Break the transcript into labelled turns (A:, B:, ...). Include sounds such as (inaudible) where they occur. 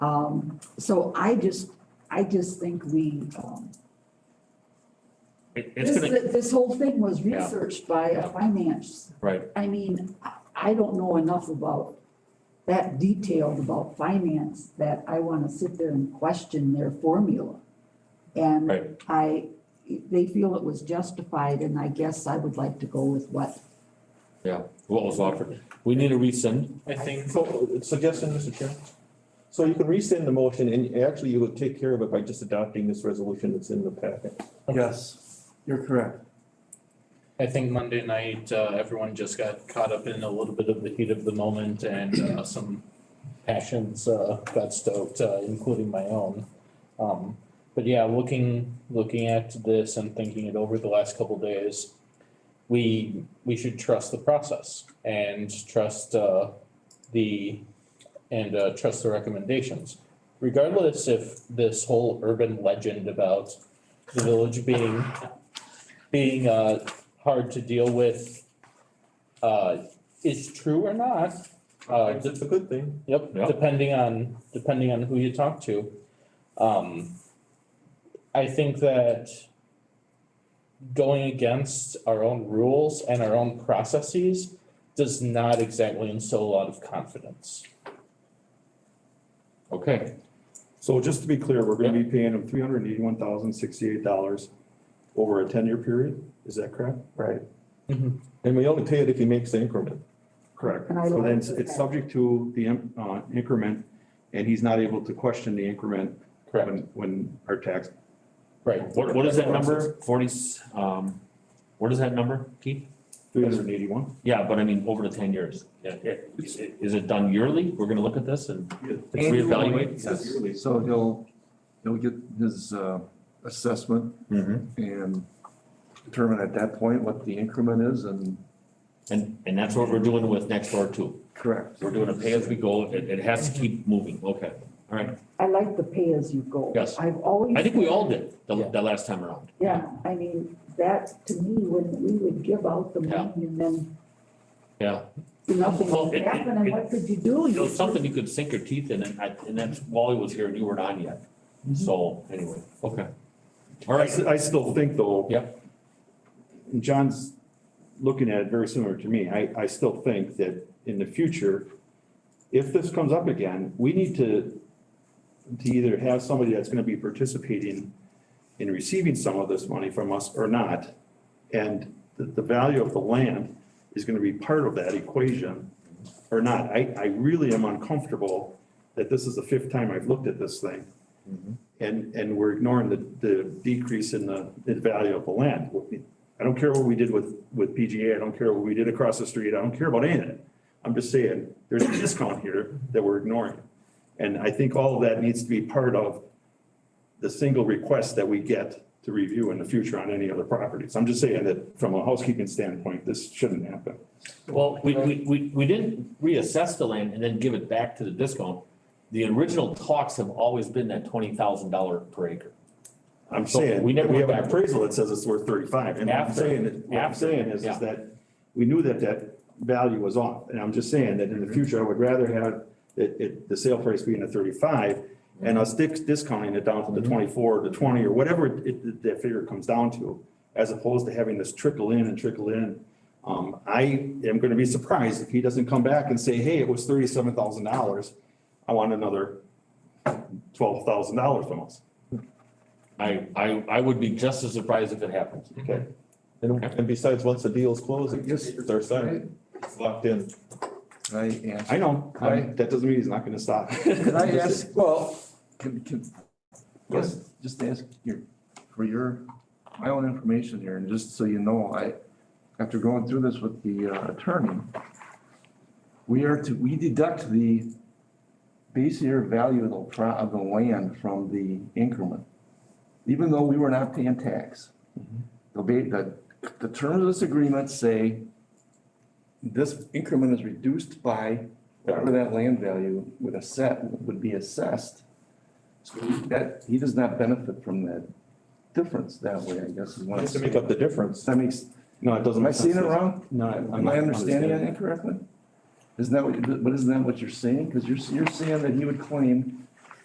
A: Um, so I just, I just think we, um,
B: It-
A: this,
B: It's gonna,
A: this whole thing was
B: Yeah.
A: researched by a finance.
B: right,
A: I mean, I- I don't know enough about that detailed about finance that I wanna sit there and question their formula. And
B: right.
A: I, they feel it was justified and I guess I would like to go with what.
B: What was offered? We need to rescind.
C: I think,
D: So, suggestion, Mr. Chairman? So you can rescind the motion and actually you would take care of it by just adopting this resolution that's in the packet.
E: Yes, you're correct.
C: I think Monday night, uh, everyone just got caught up in a little bit of the heat of the moment and, uh, some passions, uh, got stoked, uh, including my own. Um, but yeah, looking, looking at this and thinking it over the last couple days, we, we should trust the process and trust, uh, the, and, uh, trust the recommendations. Regardless if this whole urban legend about the village being, being, uh, hard to deal with uh is true or not. Uh de-
D: It's a good thing.
C: yep,
B: Yeah.
C: depending on depending on who you talk to. Um I think that going against our own rules and our own processes does not exactly instill a lot of confidence.
B: Okay,
D: So just to be clear, we're gonna be paying them three hundred and eighty-one thousand sixty-eight dollars over a ten-year period, is that correct? Right.
C: Mhm.
D: And we only pay it if he makes the increment. Correct.
A: And I
D: So
A: like
D: then it's,
A: that.
D: it's subject to the im- uh, increment and he's not able to question the increment
C: Correct,
D: when, when our tax.
C: right.
B: what, what is that number? Forty, um, what is that number, Keith?
D: Three hundred and eighty-one.
B: Yeah, but I mean, over the ten years. Yeah, yeah. Is it- is it done yearly? We're gonna look at this and reevaluate?
D: Yes.
E: So he'll, he'll get his uh, assessment
B: Mhm.
E: and determine at that point what the increment is and
B: And, and that's what we're doing with next door too.
E: correct.
B: We're doing a pay as we go. It, it has to keep moving. Okay, all right.
A: I like the pay as you go.
B: Yes.
A: I've always.
B: I think we all did the, the last time around.
A: Yeah, I mean, that to me, when we would give out the money and then.
B: Yeah.
A: Nothing
B: Well,
A: would
B: it- it-
A: happen, and what could you do?
B: You know, something you could sink your teeth in and I, and that's Wally was here and you weren't on yet. So anyway, okay. All
D: I,
B: right.
D: s- I still think though.
B: Yep.
D: and John's looking at it very similar to me. I, I still think that in the future, if this comes up again, we need to, to either have somebody that's gonna be participating in receiving some of this money from us or not. And the, the value of the land is gonna be part of that equation or not. I, I really am uncomfortable that this is the fifth time I've looked at this thing. And, and we're ignoring the, the decrease in the, the value of the land. I don't care what we did with, with PGA, I don't care what we did across the street, I don't care about any of it. I'm just saying, there's a discount here that we're ignoring. And I think all of that needs to be part of the single request that we get to review in the future on any other properties. I'm just saying that from a housekeeping standpoint, this shouldn't happen.
B: Well, we, we, we, we didn't reassess the land and then give it back to the discount. The original talks have always been that twenty thousand dollar per acre.
D: I'm
B: So
D: saying,
B: we
D: we
B: never
D: have
B: went
D: an
B: back.
D: appraisal that says it's worth thirty-five, and I'm
B: After.
D: saying, that- what I'm
B: After,
D: saying is,
B: yeah.
D: is that we knew that that value was off, and I'm just saying that
B: Mm-hmm.
D: in the future, I would rather have it, it, the sale price being a thirty-five, and us dis- discounting it down to
B: Mm-hmm.
D: the twenty-four, or the twenty, or whatever it- it, that figure comes down to, as opposed to having this trickle in and trickle in. Um, I am gonna be surprised if he doesn't come back and say, hey, it was thirty-seven thousand dollars, I want another twelve thousand dollars from us.
B: I, I, I would be just as surprised if it happens.
D: Okay. And, and besides, once the deal's closed, it just, it's our sign, it's locked in.
E: Can I answer?
D: I know, I'm- that doesn't mean he's not gonna stop.
E: (laughs) Uh, Can I ask, well, can, can, just, just ask your, for your, my own information here, and just so you know, I, after going through this with the uh, attorney, we are to, we deduct the base year value of the, pro- of the land from the increment, even though we were not paying tax. The, ba- the, the terms of this agreement say this increment is reduced by whatever that land value would asset, would be assessed. So that, he does not benefit from that difference that way, I guess is what I'm
D: Just to
E: saying.
D: make up the difference.
E: Does that makes,
D: No, it doesn't.
E: am I
D: make sense.
E: seeing it wrong?
D: No, I'm.
E: Am
D: not
E: I understanding that
D: understanding.
E: incorrectly? Isn't that what, but isn't that what you're saying? Because you're, you're saying that he would claim